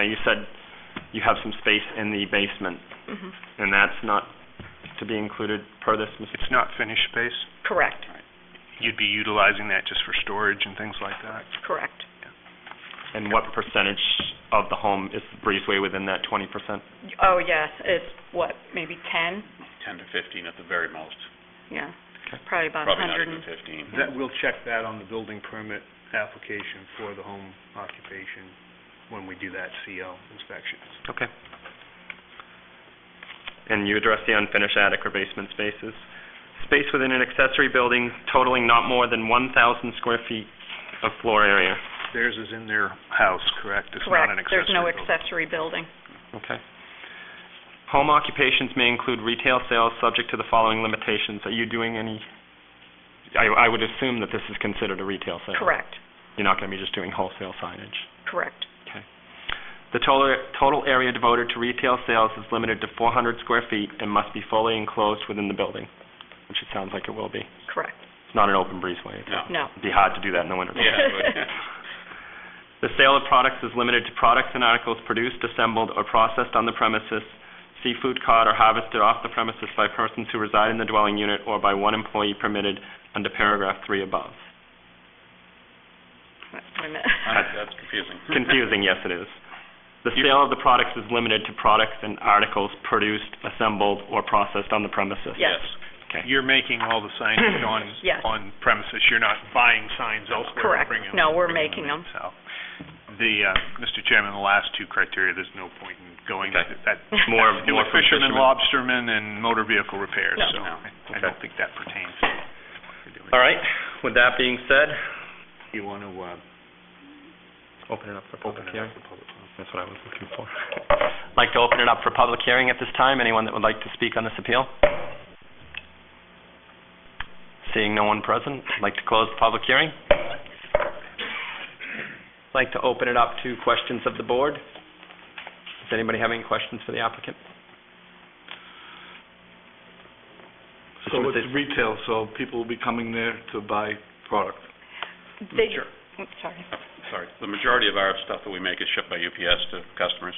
Now, you said you have some space in the basement, Mhm. and that's not to be included per this, Mr. It's not finished space. Correct, You'd be utilizing that just for storage and things like that. correct. And what percentage of the home is the breezeway within that twenty percent? Oh, yes, it's what, maybe 10? 10 to 15 at the very most, Yeah, probably about probably not 100 and... even 15. That, we'll check that on the building permit application for the home occupation when we do that CO inspection. Okay. And you address the unfinished attic or basement spaces. Space within an accessory building totaling not more than one thousand square feet of floor area. Theirs is in their house, correct? It's not Correct, an accessory there's no building. accessory building. Okay. Home occupations may include retail sales subject to the following limitations. Are you doing any, I, I would assume that this is considered a retail sale. Correct, You're not gonna be just doing wholesale signage. correct, The total, total area devoted to retail sales is limited to four hundred square feet and must be fully enclosed within the building, which it sounds like it will be. correct, It's not an open breezeway. It's- No. no. It'd be hard to do that in the winter. Yeah, it would. The sale of products is limited to products and articles produced, assembled, or processed on the premises, seafood caught or harvested off the premises by persons who reside in the dwelling unit or by one employee permitted under paragraph three above. Wait a minute. That's- That's confusing. Confusing, yes it is. The sale of the products is limited to products and articles produced, assembled, or processed on the premises. Yes. You're making all the signs on, Yes. on premises, you're not buying signs elsewhere and Correct. bringing them. No, we're bringing making in. So, the, uh, Mr. Chairman, the last two criteria, there's no point in going, Okay. that, More, do more with for fishermen, lobstermen, and motor vehicle repairs, No. so No. I- I don't think that pertains to what you're doing. All right, with that being said, You want to, uh, open it up for public open it hearing. up to public comment? That's what I was looking for. I'd like to open it up for public hearing at this time. Anyone that would like to speak on this appeal? Seeing no one present, I'd like to close the public hearing. I'd like to open it up to questions of the board. Does anybody have any questions for the applicant? So it's retail, so people will be coming there to buy product. They- Oops, Sorry. Sorry. The majority of our stuff that we make is shipped by UPS to customers,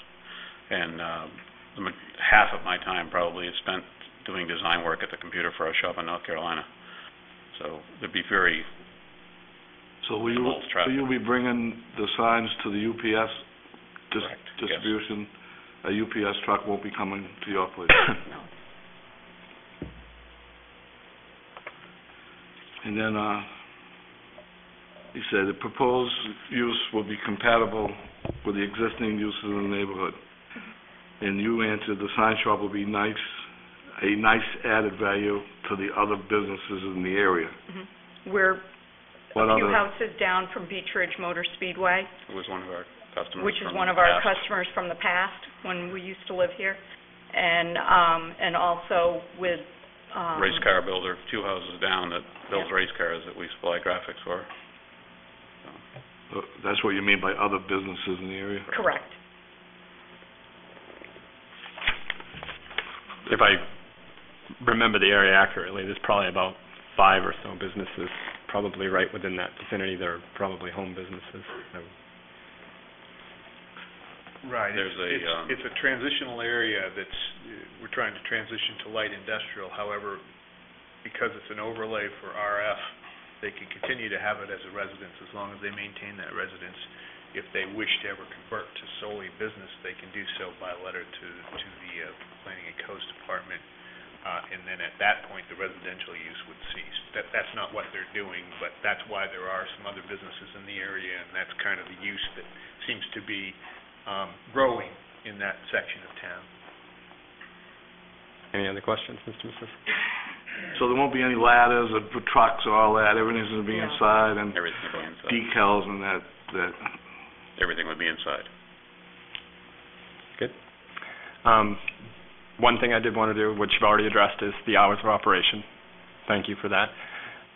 and um, the ma- half of my time probably is spent doing design work at the computer for our shop in North Carolina. So there'd be very, So will you, Small so traffic. you'll be bringing the signs to the UPS dis- Correct, yes. distribution? A UPS truck won't be coming to your place? No. And then, uh, you said the proposed use will be compatible with the existing uses in the neighborhood. And you answered the sign shop will be nice, a nice added value to the other businesses in the area. Mhm. We're What a few other, houses down from Beech Ridge Motor Speedway, it was one of our customers which is from one the of our past. customers from the past, when we used to live here, and, um, and also with, um... Race car builder, two houses down, that builds Yeah. race cars that we supply graphics for. uh, that's what you mean by other businesses in the area? Correct. If I remember the area accurately, there's probably about five or so businesses, probably right within that vicinity. They're probably home businesses. Right, There's it's, a, um, it's, it's a transitional area that's, uh, we're trying to transition to light industrial, however, because it's an overlay for RF, they can continue to have it as a residence as long as they maintain that residence. If they wish to ever convert to solely business, they can do so by letter to, to the uh, Planning and Coast Department, uh, and then at that point, the residential use would cease. That, that's not what they're doing, but that's why there are some other businesses in the area, and that's kind of the use that seems to be um, growing in that section of town. Any other questions, Mr. Mrs.? So there won't be any ladders or trucks or all that, everything's gonna be No. inside and Everything would be inside. decals and that, that, Everything would be inside. Um, One thing I did want to do, which you've already addressed, is the hours of operation. Thank you for that.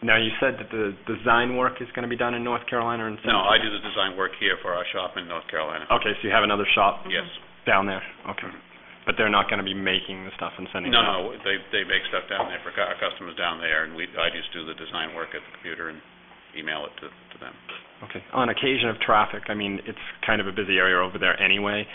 Now, you said that the design work is going to be done in North Carolina and... No, I do the design work here for our shop in North Carolina. Okay, so you have another shop Yes. down there? Okay. But they're not going to be making the stuff and sending it No, out? no, they, they make stuff down there for cu- our customers down there, and we, I just do the design work at the computer and email it to, to them. Okay, on occasion of traffic, I mean, it's kind of a busy area over there anyway.